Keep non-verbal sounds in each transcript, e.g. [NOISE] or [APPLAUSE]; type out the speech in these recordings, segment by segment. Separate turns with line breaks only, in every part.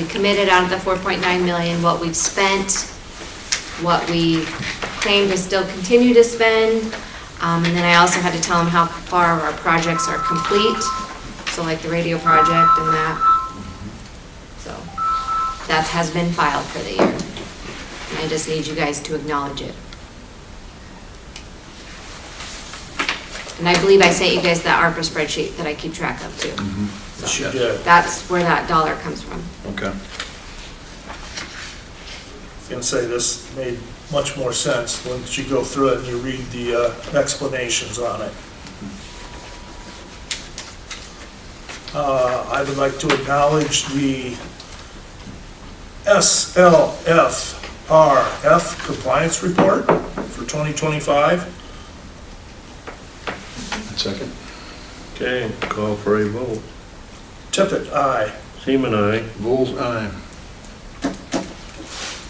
We committed out of the 4.9 million, what we've spent, what we claim to still continue to spend. Um, And then I also had to tell them how far our projects are complete, so like the radio project and that. So that has been filed for the year. And I just need you guys to acknowledge it. And I believe I sent you guys the ARPA spreadsheet that I keep track of too. So
Yes.
Yeah.
That's where that dollar comes from.
Okay.
gonna say this made much more sense once you go through it and you read the uh, explanations on it. Uh, I would like to acknowledge the SLFRF compliance report for 2025.
Second?
Okay, call for a vote.
Tippit, aye.
Seaman, aye.
Vols,
uh,
aye.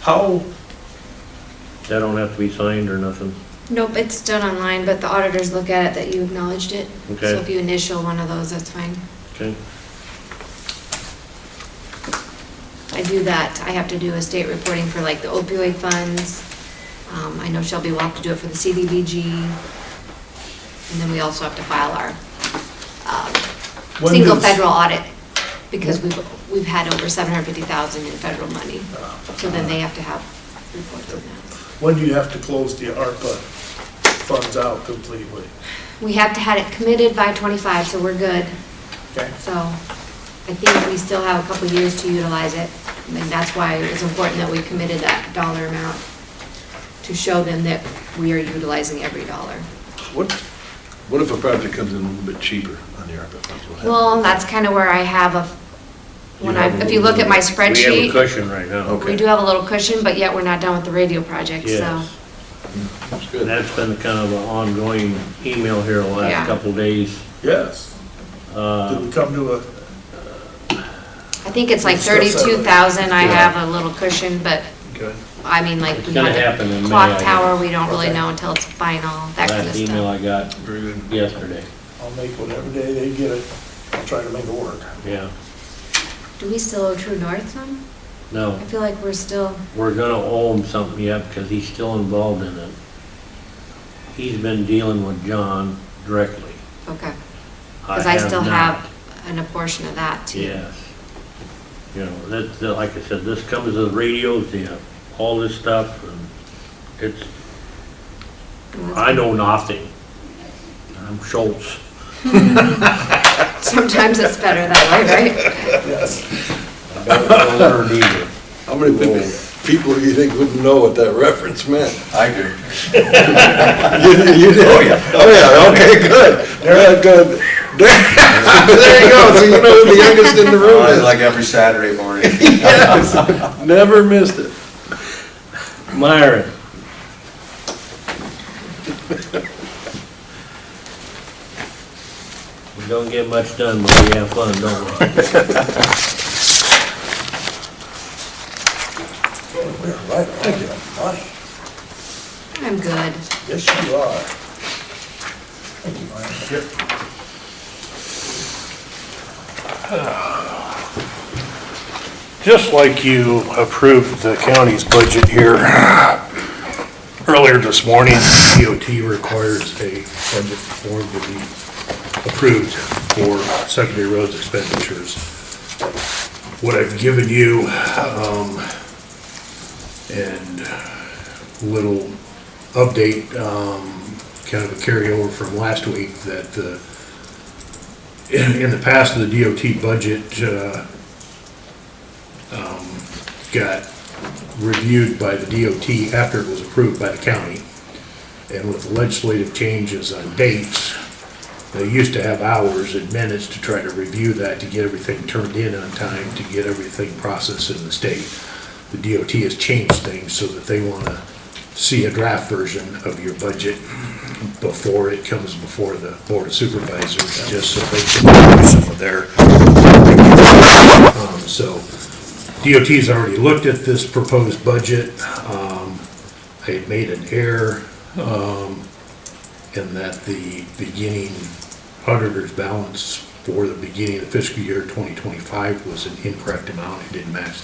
How,
That don't have to be signed or nothing.
Nope, it's done online, but the auditors look at it that you acknowledged it.
Okay.
So if you initial one of those, that's fine.
Okay,
I do that, I have to do a state reporting for like the opioid funds. Um, I know Shelby will have to do it for the CDBG. And then we also have to file our, um,
When
single
does-
federal audit, because we've, we've had over seven hundred fifty thousand in federal money. So then they have to have reports on that.
when do you have to close the ARPA funds out completely?
We have to had it committed by twenty-five, so we're good.
Okay?
So I think we still have a couple of years to utilize it, and that's why it's important that we committed that dollar amount to show them that we are utilizing every dollar.
What, what if a project comes in a little bit cheaper on the ARPA funds? What happens?
Well, and that's kind of where I have a, when I, if you look at my
we have a
spreadsheet,
cushion right now.
Okay.
we do have a little cushion, but yet we're not done with the radio project, so.
Yes.
That's
And
good.
that's been kind of an ongoing email here the
Yeah.
last couple days.
Yes. Did
Uh,
we come to a,
I think it's like
It's still settling.
thirty-two thousand, I
Yeah.
have a little cushion, but,
Okay.
I mean, like.
It's
we
gonna
had the
happen in May, I
Clock
guess.
tower, we don't really
Okay.
know until it's final, that kind of
last email
stuff.
I got
Very good.
yesterday,
I'll make whatever day they get it, I'll try to make it work.
yeah.
Do we still owe True North some?
No,
I feel like we're still,
we're gonna owe him something yet because he's still involved in it. He's been dealing with John directly.
okay, because I
have
still
not.
have an apportion of that too.
Yes. You know, that's, the- like I said, this comes with radios, the, all this stuff, and it's,
Mm-hmm.
I know nothing. I'm Schultz.
Sometimes it's better that
[LAUGHS]
way, right?
Yes.
I don't learn either.
How many people, people do you think wouldn't know what that reference meant?
I do.
[LAUGHS] You, you did? Oh, yeah. Oh, yeah, okay, good. Good, good. [LAUGHS] There you go, so you know who the youngest in the room
I
is.
every Saturday morning.
Yes, never missed it.
Myron, we don't get much done, but we have fun, don't we?
We're right on your money.
I'm good.
Yes, you are. Thank you, Myron.
Just like you approved the county's budget here earlier this morning, DOT requires a budget form to be approved for secondary roads expenditures. What I've given you, um, and little update, um, kind of a carryover from last week that the, in, in the past, the DOT budget, uh, got reviewed by the DOT after it was approved by the county. And with legislative changes on dates, they used to have hours and minutes to try to review that, to get everything turned in on time, to get everything processed in the state. The DOT has changed things so that they want to see a draft version of your budget before it comes before the Board of Supervisors, just so they can do some of their. Um, So, DOT's already looked at this proposed budget. Um, I had made an error um, in that the beginning auditor's balance for the beginning of fiscal year 2025 was an incorrect amount. It didn't match